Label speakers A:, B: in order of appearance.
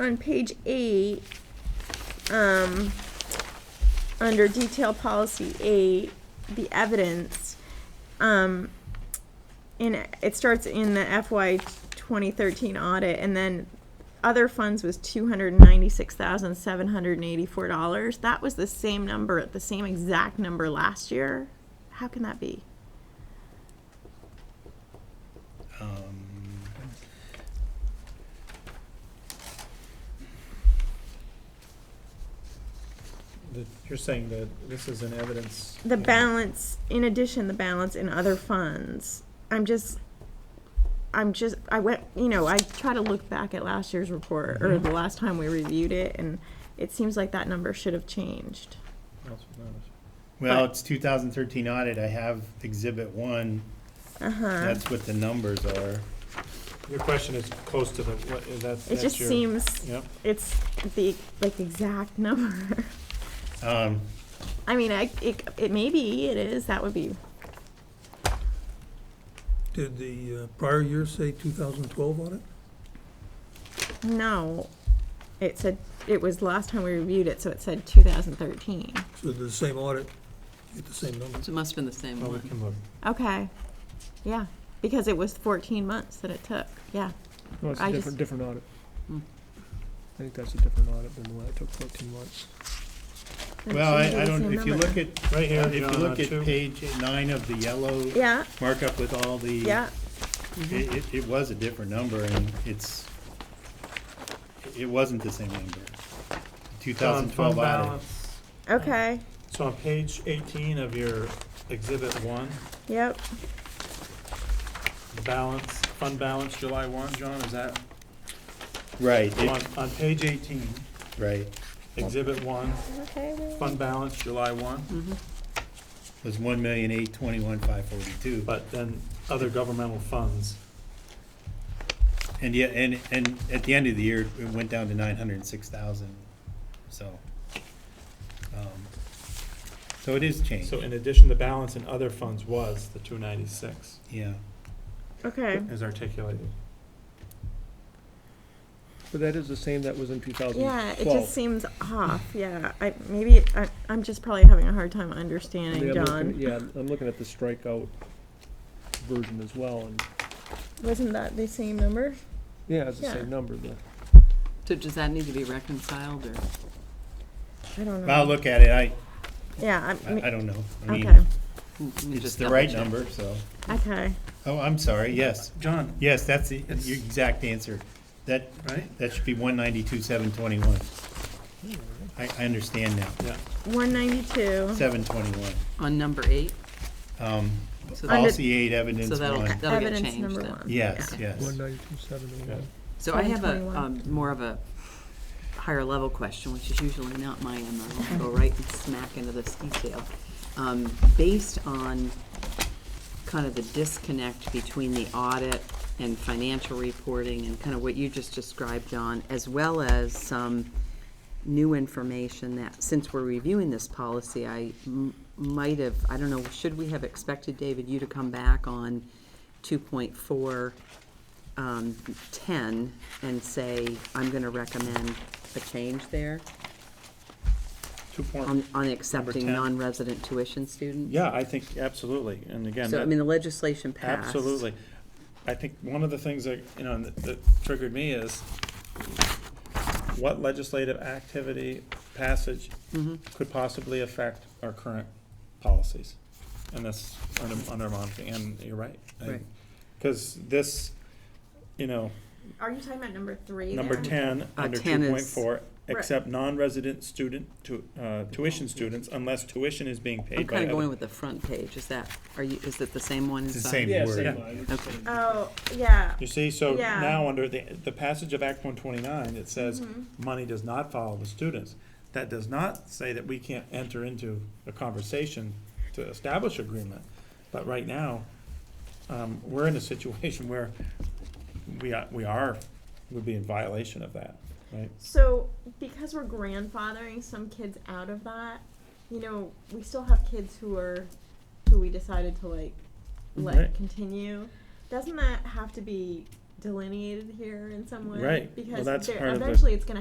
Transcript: A: on page eight, um, under detail policy eight, the evidence, um, in, it starts in the FY twenty thirteen audit, and then other funds was two hundred and ninety-six thousand, seven hundred and eighty-four dollars. That was the same number, the same exact number last year. How can that be?
B: Um,
C: The- You're saying that this is an evidence.
A: The
C: uh,
A: balance, in addition, the balance in other funds, I'm just, I'm just, I went, you know, I try to look back at last year's report, or the last time we reviewed it, and it seems like that number should have changed.
C: else was noticed.
B: Well,
A: But-
B: it's two thousand thirteen audit, I have exhibit one,
A: Uh-huh.
B: that's what the numbers are.
C: Your question is close to the, what, is that,
A: It
C: that's
A: just
C: your.
A: seems,
C: Yep,
A: it's the, like, exact number.
B: Um,
A: I mean, I, it, it maybe it is, that would be,
D: Did the uh, prior year say 2012 on it?
A: no. It said, it was last time we reviewed it, so it said two thousand thirteen.
D: So the same audit, get the same numbers?
E: So it must have been the same
C: well, we
E: one.
C: can look.
A: Okay, yeah, because it was fourteen months that it took, yeah.
F: No, it's
A: I
F: a
A: just-
F: different, different audit.
E: Hmm.
F: I think that's a different audit than the one that took fourteen months.
A: Then it
B: well,
A: shouldn't be
B: I, I
A: the
B: don't,
A: same
B: if you
A: number.
B: look at,
C: Right here,
B: if you
C: John, on
B: look at
C: two.
B: page nine of the yellow
A: Yeah,
B: markup with all the.
A: yeah, Mm-hmm.
B: It, it, it was a different number and it's, it wasn't the same number. Two
C: John,
B: thousand
C: fund
B: twelve audit.
C: balance.
A: okay,
C: So on page eighteen of your exhibit one,
A: yep,
C: the balance, fund balance July one, John, is that?
B: Right, it-
C: On, on page eighteen,
B: right,
C: exhibit one,
A: okay. well,
C: fund balance July one,
A: Mm-hmm.
E: Mhm.
B: It was one million eight twenty-one five forty-two.
C: but then other governmental funds.
B: And yeah, and, and at the end of the year, it went down to nine hundred and six thousand, so. um, So it is changed,
C: So in addition, the balance in other funds was the two ninety-six,
B: yeah.
A: Okay,
C: as articulated.
F: But that is the same that was in two thousand
A: yeah,
F: twelve.
A: it just seems off, yeah, I, maybe, I, I'm just probably having a hard time understanding, John.
F: Yeah, I'm looking at the strikeout version as well, and,
A: Wasn't that the same number?
F: yeah, it's the
A: Yeah.
F: same number, the
E: So does that need to be reconciled, or?
A: I don't
B: I'll
A: know,
B: look at it, I,
A: yeah, I,
B: I I
A: mean,
B: don't know, I mean,
A: okay,
E: mm, let me
B: it's
E: just
B: the right
E: double check.
B: number, so.
A: okay,
B: Oh, I'm sorry, yes,
C: John,
B: yes, that's the, your exact answer, that,
C: right?
B: that should be one ninety-two seven twenty-one. I, I understand now,
C: Yeah.
A: one ninety-two,
B: seven twenty-one,
E: On number eight,
B: um,
E: so
A: Under-
E: that-
B: policy eight,
E: so
B: evidence
E: that'll,
B: one,
E: that'll get
A: evidence
E: changed
A: number
E: then.
A: one.
B: yes, yes,
D: 192701.
E: So I have a,
A: 721.
E: um, more of a higher level question, which is usually not my MO. I'll go right and smack into this detail. Um, Based on kind of the disconnect between the audit and financial reporting and kind of what you just described, John, as well as some new information that, since we're reviewing this policy, I m- might have, I don't know, should we have expected, David, you to come back on two point four um, 10 and say, I'm going to recommend a change there
C: Two point,
E: on, on accepting
C: 10.
E: non-resident tuition students?
C: Oh. yeah, I think absolutely, and again.
E: So, I
C: that-
E: mean, the legislation passed.
C: Absolutely. I think one of the things that, you know, that- that triggered me is what legislative activity passage
E: Mm-hmm.
C: could possibly affect our current policies? And that's under, under monitoring, and you're right.
E: Right.
C: Because this, you know,
A: Are you talking about number three
C: number
A: there?
C: ten, under
E: 10
C: two
E: is-
C: point four, except non-resident student to, uh, tuition students unless tuition is being
E: I'm
C: paid by
E: kind of
C: other.
E: going with the front page. Is that, are you, is it the same one?
B: it's the
E: inside?
B: same
F: Yeah,
B: word.
F: same
C: Yeah.
F: line.
E: Okay.
A: Oh, yeah,
C: You see, so
A: Yeah.
C: now under the, the passage of Act one twenty-nine, it says, money does not follow the students. That does not say that we can't enter into a conversation to establish agreement. But right now, um, we're in a situation where we are, we are, would be in violation of that, right?
A: So, because we're grandfathering some kids out of that, you know, we still have kids who are, who we decided to like, let
C: Right.
A: continue. Doesn't that have to be delineated here in some way.
B: Right. Well,
A: Because
B: that's
A: there-
B: part of the-
A: eventually it's gonna